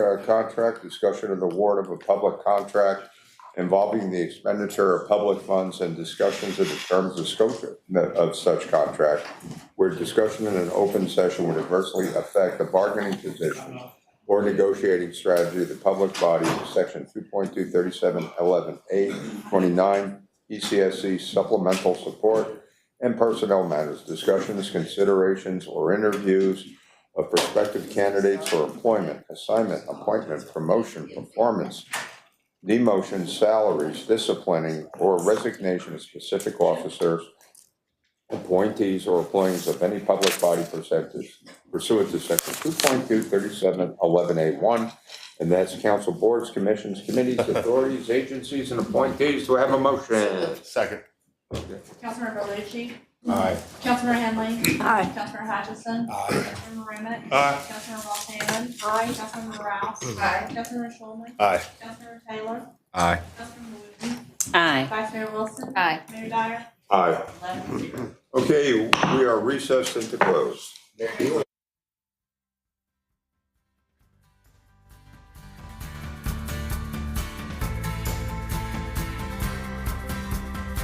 government contract, discussion of the award of a public contract involving the expenditure of public funds and discussions of the terms of scope of such contract, where discussion in an open session would adversely affect the bargaining position or negotiating strategy of the public body, section two point two thirty-seven eleven eight twenty-nine, E ECSC supplemental support and personnel matters, discussions, considerations, or interviews of prospective candidates for employment, assignment, appointment, promotion, performance, demotion, salaries, disciplining, or resignation of specific officers, appointees or employees of any public body pursuant to- pursuant to section two point two thirty-seven eleven A one. And that's council boards, commissions, committees, authorities, agencies, and appointees. Do I have a motion? Second. Councilmember Lucci, Aye. Councilmember Henley, Aye. Councilmember Hutchinson, Aye. Councilmember Remick. Aye. Councilmember Walton. Aye. Councilmember Rouse. Aye. Councilmember Schulman. Aye. Councilmember Taylor. Aye. Councilmember Wooten. Aye. Vice Mayor Wilson. Aye. Mayor Dyer. Aye. Eleven zero. Okay, we are recessed into closed.